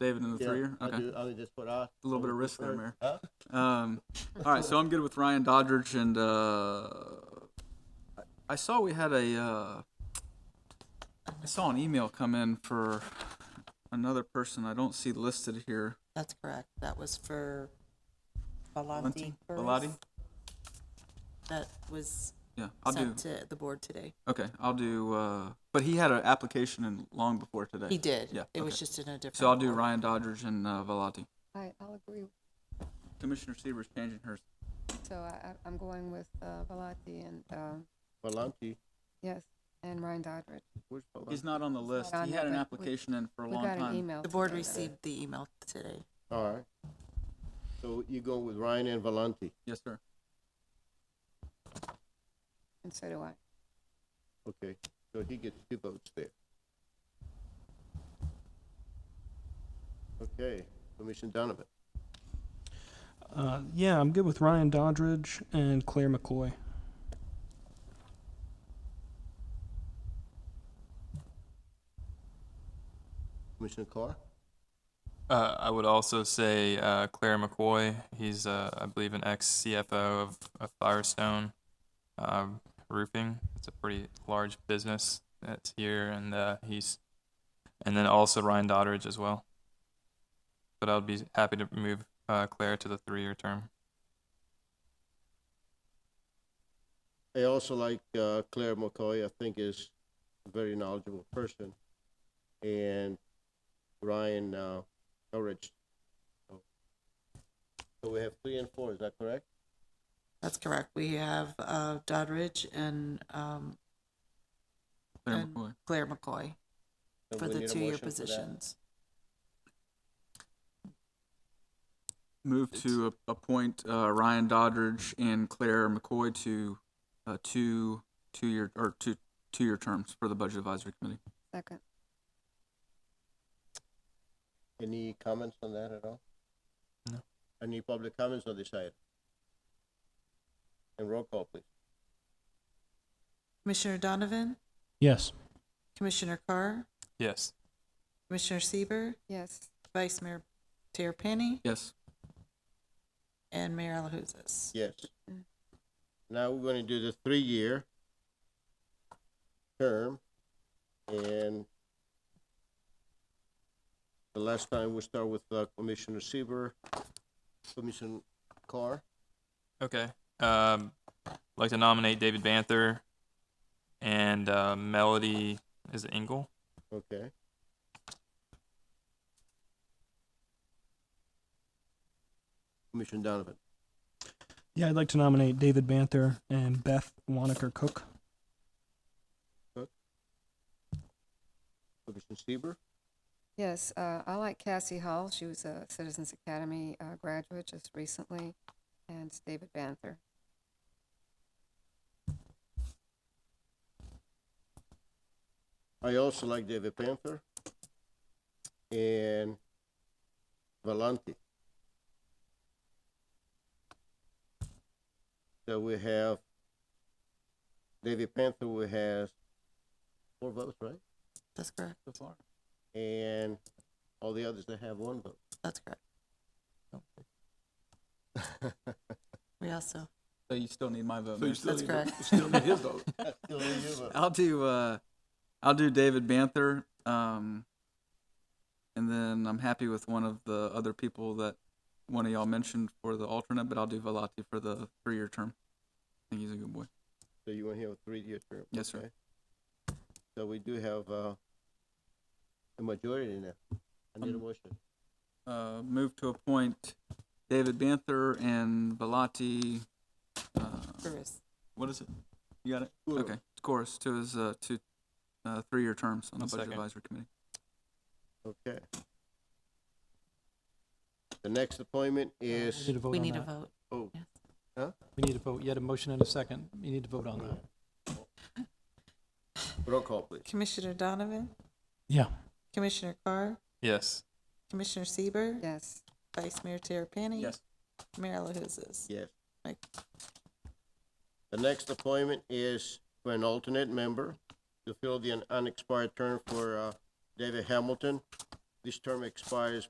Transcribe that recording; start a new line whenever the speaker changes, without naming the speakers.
David in the
Yeah,
three year?
I
Okay.
do, I would just put I.
A little bit of risk there, Mayor.
Huh?
Um, all right, so I'm good with Ryan Doddridge and uh, I- I saw we had a uh, I saw an email come in for another person I don't see listed here.
That's correct. That was for
Valenti?
Baladi.
Bellotti?
That was
Yeah, I'll do.
sent to the board today.
Okay, I'll do. Uh, but he had an application in long before today.
He did.
Yeah.
It was
okay.
just in a different.
So I'll do
order.
Ryan Doddridge and uh, Velati.
I, I'll agree.
Commissioner Seaver's changing hers.
So I, I- I'm going with uh, Valati and, um,
Valenti.
yes, and Ryan Doddridge.
Where's Valenti?
He's not on the list.
on
He
there,
had an
but we-
application in for a
We
long
got an
time.
email.
The board
today.
received the email today.
All right. So you go with Ryan and Valenti.
Yes, sir.
And so do I.
Okay, so he gets two votes there. Okay, Commissioner Donovan.
Uh, yeah, I'm good with Ryan Doddridge and Claire McCoy.
Commissioner Carr?
Uh, I would also say uh, Claire McCoy. He's, uh, I believe, an ex CFO of, of Firestone um, Roofing. It's a pretty large business that's here, and uh, he's, and then also Ryan Doddridge as well. But I would be happy to move uh, Claire to the three-year term.
I also like uh, Claire McCoy, I think is a very knowledgeable person. And Ryan uh, Elridge. So we have three and four, is that correct?
That's correct. We have uh, Doddridge and um,
Claire
And-
McCoy.
Claire McCoy
So
for
we
the
need a
two-year
motion for that.
positions.
Move to a- appoint uh, Ryan Doddridge and Claire McCoy to uh, two two-year or two two-year terms for the Budget Advisory Committee.
Second.
Any comments on that at all?
No.
Any public comments on this item? And roll call, please.
Commissioner Donovan,
Yes.
Commissioner Carr,
Yes.
Commissioner Sieber,
Yes.
Vice Mayor Terapany,
Yes.
and Mayor Alahouzes.
Yes. Now we're gonna do the three-year term, and the last time we start with uh, Commissioner Sieber, Commissioner Carr.
Okay. Um, I'd like to nominate David Banther and uh, Melody is it Engel.
Okay. Commissioner Donovan.
Yeah, I'd like to nominate David Banther and Beth Wanaker Cook.
Commissioner Sieber.
Yes, uh, I like Cassie Hall. She was a Citizens Academy uh, graduate just recently, and it's David Banther.
I also like David Panther and Valenti. So we have David Panther, we have four votes, right?
That's correct.
So far.
And all the others that have one vote.
That's correct. We also,
So you still need my vote.
So
Mayor.
you still
That's
need,
correct.
to- still need his vote.
I'll do uh, I'll do David Banther, um, and then I'm happy with one of the other people that one of y'all mentioned for the alternate, but I'll do Velati for the three-year term. I think he's a good boy.
So you want to have a three-year term?
Yes, sir.
okay. So we do have, uh, a majority now. I need a
Um,
motion.
Uh, move to appoint David Banther and Velati. Uh,
Bruce,
what is it? You got it.
Sure.
Okay, Chorus to his uh, to uh, three-year terms on the
I'll
Budget
second.
Advisory Committee.
Okay. The next appointment is.
We need to vote
we
on
need a
that.
vote.
Oh.
Yes.
We need to vote. You had a motion and a second. You need to vote on that.
Roll call, please.
Commissioner Donovan,
Yeah.
Commissioner Carr,
Yes.
Commissioner Sieber,
Yes.
Vice Mayor Terapany,
Yes.
Mayor LaHouzes.
Yes.
Right.
The next appointment is for an alternate member to fill the unexpired term for, uh, David Hamilton. This term expires